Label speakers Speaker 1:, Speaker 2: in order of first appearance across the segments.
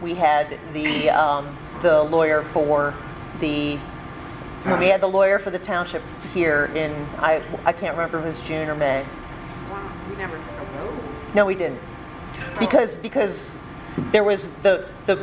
Speaker 1: we had the, um, the lawyer for the, when we had the lawyer for the township here in, I, I can't remember if it was June or May.
Speaker 2: Wow, we never took a vote.
Speaker 1: No, we didn't. Because, because there was the, the,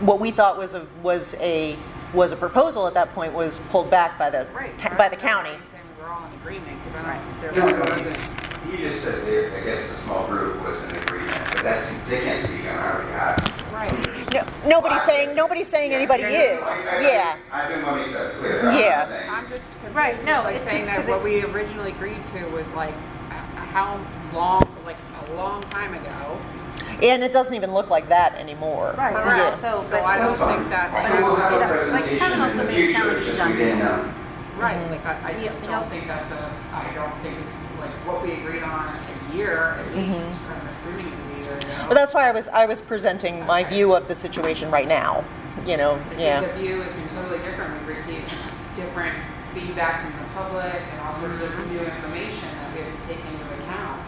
Speaker 1: what we thought was a, was a, was a proposal at that point was pulled back by the,
Speaker 2: Right.
Speaker 1: ta- by the county.
Speaker 2: I'm saying we're all in agreement, because I don't, there
Speaker 3: No,
Speaker 2: was.
Speaker 3: no, he's- he just said that, I guess the small group was in agreement, but that's, they can't speak on our behalf.
Speaker 2: Right.
Speaker 1: No, nobody's saying, nobody's saying anybody
Speaker 3: Yeah,
Speaker 1: is,
Speaker 3: I- I-
Speaker 1: yeah.
Speaker 3: I've been wanting to make that clear, I'm
Speaker 1: Yeah.
Speaker 3: just saying.
Speaker 2: I'm just
Speaker 4: Right,
Speaker 2: confused,
Speaker 4: no,
Speaker 2: it's like
Speaker 4: it's
Speaker 2: saying
Speaker 4: just 'cause
Speaker 2: that what
Speaker 4: it-
Speaker 2: we originally agreed to was like, uh, how long, like, a long time ago.
Speaker 1: And it doesn't even look like that anymore.
Speaker 4: Right, and
Speaker 1: Yeah.
Speaker 2: Correct,
Speaker 4: also,
Speaker 2: so
Speaker 4: but-
Speaker 2: I don't
Speaker 3: That's fine.
Speaker 2: think that,
Speaker 3: So we'll
Speaker 2: like,
Speaker 3: have a
Speaker 4: Yeah, like, Kevin
Speaker 3: presentation
Speaker 4: also
Speaker 3: in the
Speaker 4: made it sound
Speaker 3: future,
Speaker 4: like he
Speaker 3: just we
Speaker 4: done
Speaker 3: didn't
Speaker 4: that.
Speaker 3: know.
Speaker 2: right, like, I, I
Speaker 4: Yeah,
Speaker 2: just
Speaker 4: it
Speaker 2: don't
Speaker 4: also-
Speaker 2: think that's a, I don't think it's like what we agreed on a year at
Speaker 4: Mm-hmm.
Speaker 2: least, I'm assuming it was a year ago.
Speaker 1: But that's why I was, I was presenting my view of the situation right now, you know,
Speaker 2: I think
Speaker 1: yeah.
Speaker 2: The view has been totally different. We've received different feedback from the public and all sorts of new information that we have to take into account.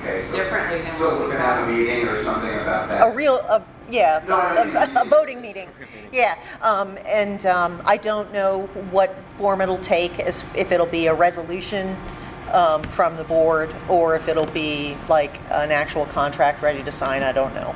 Speaker 3: Okay, so-
Speaker 2: Differently than
Speaker 3: So
Speaker 2: what
Speaker 3: we're
Speaker 2: we
Speaker 3: gonna have a
Speaker 2: thought.
Speaker 3: meeting or something about that?
Speaker 1: A real, a, yeah,
Speaker 3: No, no, no,
Speaker 1: a-
Speaker 3: no,
Speaker 1: a, a voting meeting, yeah. Um, and, um, I don't know what form it'll take, as, if it'll be a resolution, um, from the board, or if it'll be like an actual contract ready to sign, I don't know.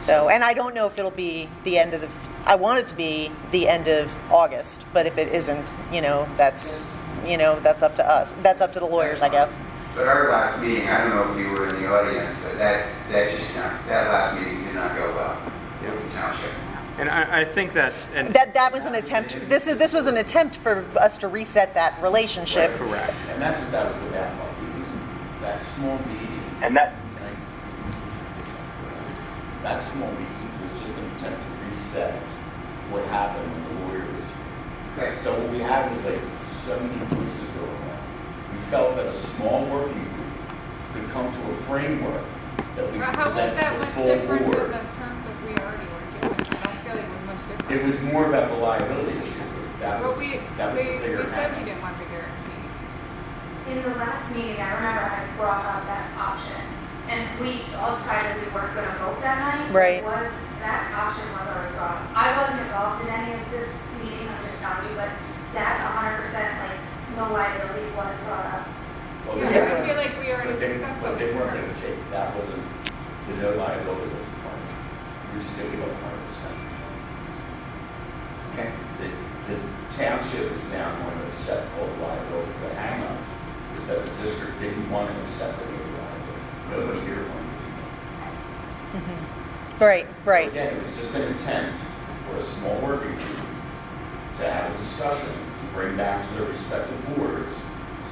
Speaker 1: So, and I don't know if it'll be the end of the, I want it to be the end of August, but if it isn't, you know, that's, you know, that's up to us. That's up to the lawyers, I guess.
Speaker 3: But our last meeting, I don't know if you were in the audience, but that, that just, not- that last meeting did not go well with the township.
Speaker 5: And I, I think that's, and
Speaker 1: That, that was an attempt, this is, this was an attempt for us to reset that relationship.
Speaker 5: correct.
Speaker 6: And that's what that was about, like, it was that small meeting,
Speaker 7: And that,
Speaker 6: like, that small meeting was just an attempt to reset what happened when the lawyer was here.
Speaker 3: Okay, so
Speaker 6: So what we had was like so many voices going on. We felt that a small working group could come to a framework that we
Speaker 8: Well,
Speaker 6: could
Speaker 8: How was
Speaker 6: present
Speaker 8: that
Speaker 6: to the
Speaker 8: much
Speaker 6: full
Speaker 8: different than
Speaker 6: board.
Speaker 8: the terms that we already were given? I don't feel like it was much different.
Speaker 6: It was more about the liability issue, that was,
Speaker 8: But we,
Speaker 6: that was the
Speaker 8: we,
Speaker 6: bigger
Speaker 8: we said we
Speaker 6: hand.
Speaker 8: didn't want the guarantee.
Speaker 9: In the last meeting, I remember I brought up that option, and we all decided we weren't gonna vote that night.
Speaker 1: Right.
Speaker 9: It Was, that option was already brought up. I wasn't involved in any of this meeting, I'm just telling you, but that hundred percent, like, no liability was brought up.
Speaker 6: Well,
Speaker 8: Yeah,
Speaker 6: the
Speaker 8: I
Speaker 1: There
Speaker 6: difference-
Speaker 8: feel like we already
Speaker 6: But they,
Speaker 8: discussed
Speaker 6: but they weren't
Speaker 8: something.
Speaker 6: gonna take, that wasn't, the no liability was part of it. We're just gonna go hundred percent.
Speaker 3: Okay.
Speaker 6: The, the township is now going to accept all the liability. The hangup is that the district didn't want to accept any of the liability. Nobody here wanted to. do that.
Speaker 1: Right,
Speaker 6: So
Speaker 1: right.
Speaker 6: Again, it was just an attempt for a small working group to have a discussion, to bring back to their respective boards,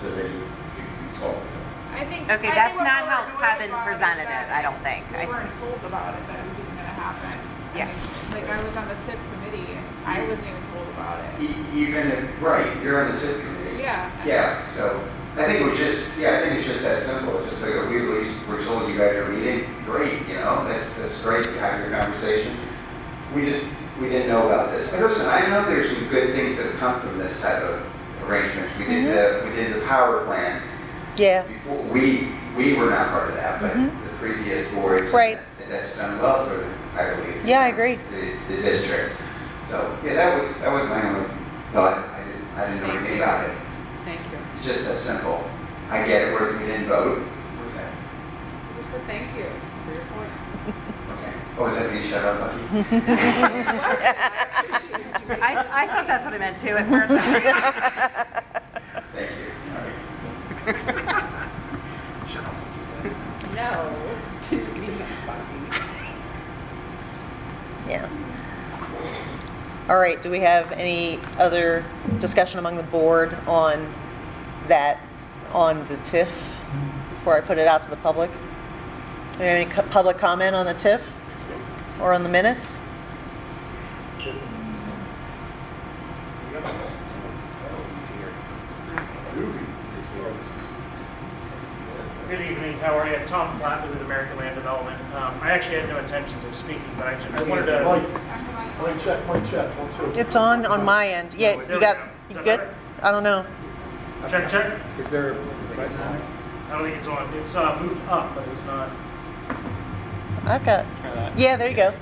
Speaker 6: so that you could talk about it.
Speaker 8: I think.
Speaker 4: Okay,
Speaker 8: I
Speaker 4: that's
Speaker 8: think what
Speaker 4: not
Speaker 8: we
Speaker 4: how
Speaker 8: were annoyed
Speaker 4: Kevin
Speaker 8: about is
Speaker 4: presented
Speaker 8: that
Speaker 4: it, I don't think. I-
Speaker 8: We weren't told about it, that it was even gonna happen.
Speaker 4: Yeah.
Speaker 8: And, Like, I was on the TIP committee, and I wasn't even told about it.
Speaker 3: E- Even if, right, you're on the SIP committee.
Speaker 8: Yeah.
Speaker 3: Yeah, so I think it was just, yeah, I think it's just that simple. Just like, we at least, we're told you guys are meeting, great, you know, that's, that's great, you have your conversation. We just, we didn't know about this. And listen, I know there's some good things that come from this type of arrangement. We did the, we did the power plant.
Speaker 1: Yeah,
Speaker 3: Before, we, we were not part of that, but the previous boards.
Speaker 1: Mm-hmm. Right.
Speaker 3: and That's done well for, the- I believe.
Speaker 1: Yeah, I agree.
Speaker 3: The, the district. So, yeah, that was, that was my only thought. I didn't, I didn't know anything about it.
Speaker 2: Thank you.
Speaker 3: It's just that simple. I get it, we're, we didn't vote. What's that?
Speaker 2: Just a thank you for your point.
Speaker 3: Okay. Oh, was that me? Shut up, buddy.
Speaker 4: I, I thought that's what I meant too at first. I was like,
Speaker 3: Thank you. All right.
Speaker 2: No, didn't mean that funny.
Speaker 1: yeah. All right, do we have any other discussion among the board on that, on the TIF, before I put it out to the public? Do we have any co- public comment on the TIF or on the minutes?
Speaker 10: Good evening, how are you? Tom Flatley with American Land Development. Um, I actually had no intentions of speaking, but I ju- I wanted to.
Speaker 11: Mike, Mike, check, Mike, check, one, two.
Speaker 1: It's on, on my end. Yeah,
Speaker 10: There
Speaker 1: you
Speaker 10: we
Speaker 1: got,
Speaker 10: go.
Speaker 1: you
Speaker 10: Is that
Speaker 1: good?
Speaker 10: better?
Speaker 1: I don't know.
Speaker 10: Check, check.
Speaker 11: Is there?
Speaker 10: I don't think it's on. It's uh, moved up, but it's not.
Speaker 1: I've got, yeah, there you go.